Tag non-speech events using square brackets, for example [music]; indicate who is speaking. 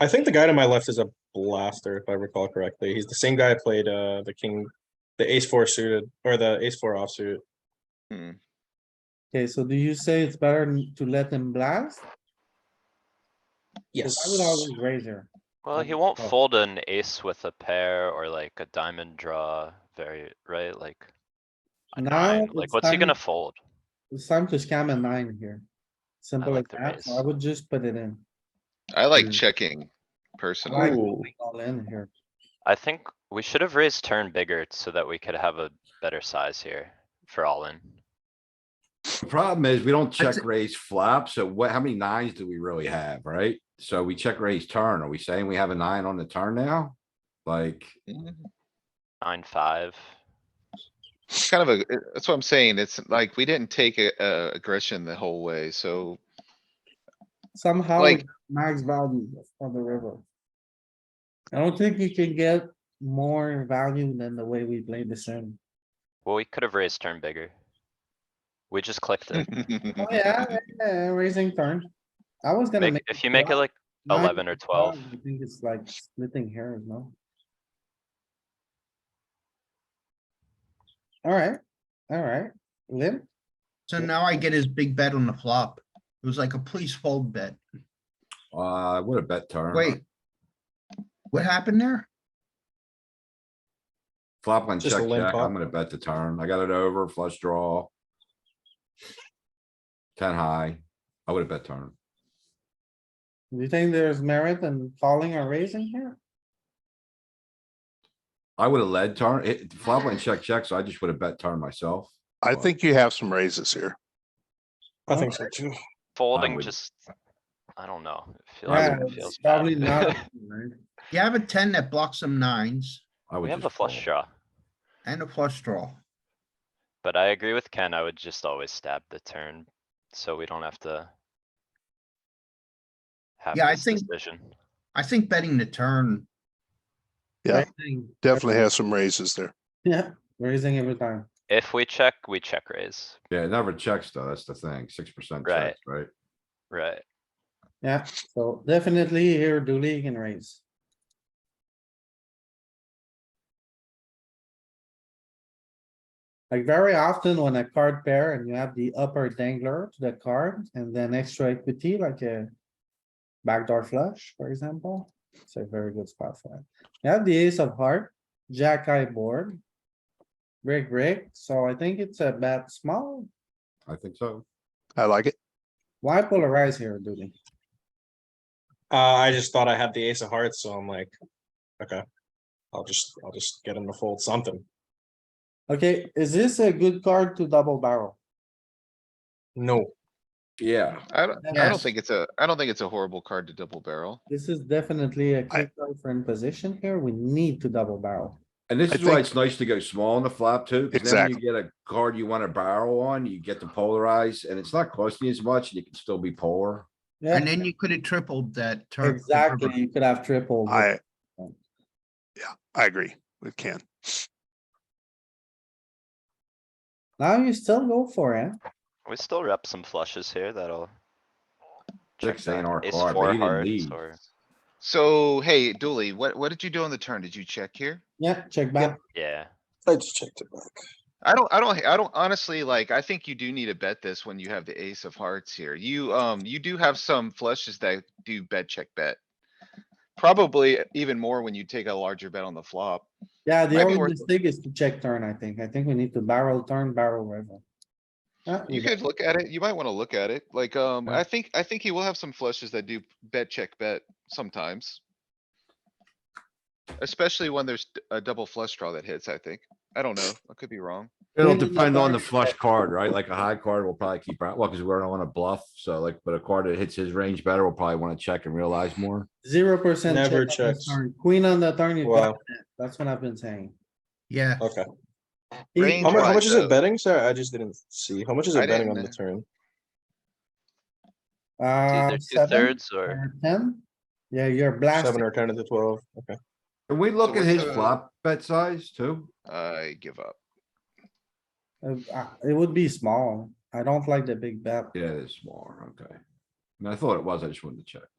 Speaker 1: I think the guy to my left is a blaster, if I recall correctly. He's the same guy I played uh the king, the ace four suited or the ace four offsuit.
Speaker 2: Hmm,
Speaker 3: Okay, so do you say it's better n- to let him blast? 'Cause
Speaker 1: Yes.
Speaker 3: I would always raise here.
Speaker 4: Well, he
Speaker 3: Um,
Speaker 4: won't
Speaker 3: oh.
Speaker 4: fold an ace with a pair or like a diamond draw very, right? Like. A
Speaker 3: Now
Speaker 4: nine, like
Speaker 3: it's
Speaker 4: what's he
Speaker 3: time-
Speaker 4: gonna fold?
Speaker 3: It's time to scam a nine here. Simple as
Speaker 4: like the
Speaker 3: that, so
Speaker 4: raise.
Speaker 3: I would just put it in,
Speaker 2: I like
Speaker 3: Mm.
Speaker 2: checking
Speaker 3: like-
Speaker 2: personally.
Speaker 1: Ooh,
Speaker 3: all in here.
Speaker 4: I think we should have raised turn bigger so that we could have a better size here for all in.
Speaker 5: The Problem is, we don't check
Speaker 6: That's-
Speaker 5: raise flop, so what, how many nines do we really have, right? So we check raise turn. Are we saying we have a nine on the turn now? Like,
Speaker 2: Mm,
Speaker 4: Nine, five.
Speaker 2: It's kind of a, it- that's what I'm saying. It's like, we didn't take a, a aggression the whole way, so
Speaker 3: Somehow
Speaker 2: Like-
Speaker 3: it's max value on the river. I don't think you can get more value than the way we played this in.
Speaker 4: Well, we could have raised turn bigger. We just clicked
Speaker 3: [laughs]
Speaker 4: it.
Speaker 3: [laughs] Oh, yeah, yeah, yeah, raising turn. I was gonna
Speaker 4: Make,
Speaker 3: make.
Speaker 4: if you make it
Speaker 3: black,
Speaker 4: like
Speaker 3: nine,
Speaker 4: 11 or 12.
Speaker 3: I think it's like splitting hairs, no? Alright, alright, limp.
Speaker 6: So now I get his big bet on the flop. It was like a please fold bet.
Speaker 5: uh, what a bet turn.
Speaker 6: Wait. What happened there?
Speaker 5: Flop on check,
Speaker 1: Just a limp
Speaker 5: check.
Speaker 1: pot.
Speaker 5: I'm gonna bet the turn. I got it over flush draw. Ten high. I would have bet turn.
Speaker 3: Do you think there's merit in calling or raising here?
Speaker 5: I would have led turn. It, flop went check, check, so I just would have bet turn myself.
Speaker 7: I
Speaker 5: Well-
Speaker 7: think you have some raises here.
Speaker 1: I think so too.
Speaker 4: Folding
Speaker 5: would-
Speaker 4: just, I don't know. it feels-
Speaker 3: Yeah,
Speaker 4: it
Speaker 3: it's
Speaker 4: feels bad.
Speaker 3: Probably
Speaker 4: [laughs]
Speaker 3: not. right?
Speaker 7: [laughs]
Speaker 6: You have a ten that blocks some nines
Speaker 5: I would
Speaker 4: We have
Speaker 5: just
Speaker 4: a flush
Speaker 5: fold.
Speaker 4: draw,
Speaker 6: and a flush draw.
Speaker 4: but I agree with Ken. I would just always stab the turn, so we don't have to. Have
Speaker 6: Yeah, I
Speaker 4: this
Speaker 6: think-
Speaker 4: decision.
Speaker 6: I think betting the turn,
Speaker 7: Yeah.
Speaker 3: Raising.
Speaker 7: Definitely has some raises there.
Speaker 3: [laughs] Yeah, raising every time.
Speaker 4: If we check, we check raise,
Speaker 5: Yeah, it never checks though. That's the thing. Six percent
Speaker 4: Right.
Speaker 5: checks, right?
Speaker 4: right?
Speaker 3: Yeah, so definitely here Dooley can raise. Like very often when a card pair and you have the upper dangler to the card and then extra equity like a backdoor flush, for example, it's a very good spot for it. You have the ace of heart, jack eye board. Break, break, so I think it's a bet small.
Speaker 5: I think so.
Speaker 7: I like it.
Speaker 3: Why polarize here, Dooley?
Speaker 1: Uh, I just thought I had the ace of hearts, so I'm like, okay. I'll just, I'll just get him to fold something.
Speaker 3: Okay, is this a good card to double barrel?
Speaker 1: No,
Speaker 5: Yeah.
Speaker 2: [laughs] I don't, I don't
Speaker 6: Yes.
Speaker 2: think it's a, I don't think it's a horrible card to double barrel.
Speaker 3: This is definitely a good card for in position here. We need to double barrel.
Speaker 5: And this
Speaker 7: I
Speaker 5: is why
Speaker 7: think-
Speaker 5: it's nice to go small on the flop too, because then when you
Speaker 7: Exactly.
Speaker 5: get a card you wanna barrel on, you get to polarize, and it's not costing you as much, and you can still be polar.
Speaker 6: and
Speaker 3: Yeah,
Speaker 6: then you could have tripled that turn.
Speaker 3: exactly. You could have triple. with-
Speaker 7: I. Yeah, I agree. It can.
Speaker 3: Now you still go for it.
Speaker 4: We still rep some flushes here that'll. check
Speaker 5: Six ain't
Speaker 4: back.
Speaker 5: our
Speaker 4: Ace
Speaker 5: card, but
Speaker 4: four
Speaker 5: he didn't
Speaker 4: hearts
Speaker 5: lead.
Speaker 4: or-
Speaker 2: So, hey, Dooley, what, what did you do on the turn? Did you check here?
Speaker 3: Yeah, check back.
Speaker 4: Yeah,
Speaker 1: I just checked it back.
Speaker 2: I don't, I don't, I don't honestly like, I think you do need to bet this when you have the ace of hearts here. You, um, you do have some flushes that do bet, check, bet. Probably even more when you take a larger bet on the flop.
Speaker 3: Yeah, the
Speaker 2: Might be
Speaker 3: only
Speaker 2: worth-
Speaker 3: mistake is to check turn, I think. I think we need to barrel turn, barrel river. Yeah,
Speaker 2: You
Speaker 3: got-
Speaker 2: could look at it. You might wanna look at it. Like, um,
Speaker 3: Yeah.
Speaker 2: I think, I think he will have some flushes that do bet, check, bet sometimes. Especially when there's d- a double flush draw that hits, I think. I don't know. I could be wrong.
Speaker 5: It'll
Speaker 3: When did the
Speaker 5: depend on the
Speaker 3: card-
Speaker 5: flush card, right? Like a high card will probably keep, out- well, because we're on a bluff, so like, but a card that hits his range better will probably wanna check and realize more.
Speaker 3: Zero percent.
Speaker 1: Never
Speaker 3: check on the
Speaker 1: checks.
Speaker 3: turn. Queen on the turn, you
Speaker 1: Wow.
Speaker 3: got it. That's what I've been saying.
Speaker 6: Yeah,
Speaker 1: Okay.
Speaker 2: Range
Speaker 1: How much, how
Speaker 2: wise,
Speaker 1: much is
Speaker 2: though.
Speaker 1: it betting, sir? I just didn't see. How much is
Speaker 2: I
Speaker 1: it betting on
Speaker 2: didn't-
Speaker 1: the turn?
Speaker 4: It's
Speaker 3: Uh,
Speaker 4: either two
Speaker 3: seven
Speaker 4: thirds or,
Speaker 3: or ten? Yeah, you're blasting.
Speaker 1: Seven or ten to the twelve, okay.
Speaker 5: Can we look at
Speaker 2: what's
Speaker 5: his
Speaker 2: the-
Speaker 5: flop bet size too?
Speaker 2: I give up.
Speaker 3: Uh, uh, It would be small. I don't like the big bet.
Speaker 5: Yeah, it's smaller, okay. And I thought it was, I just wanted to check.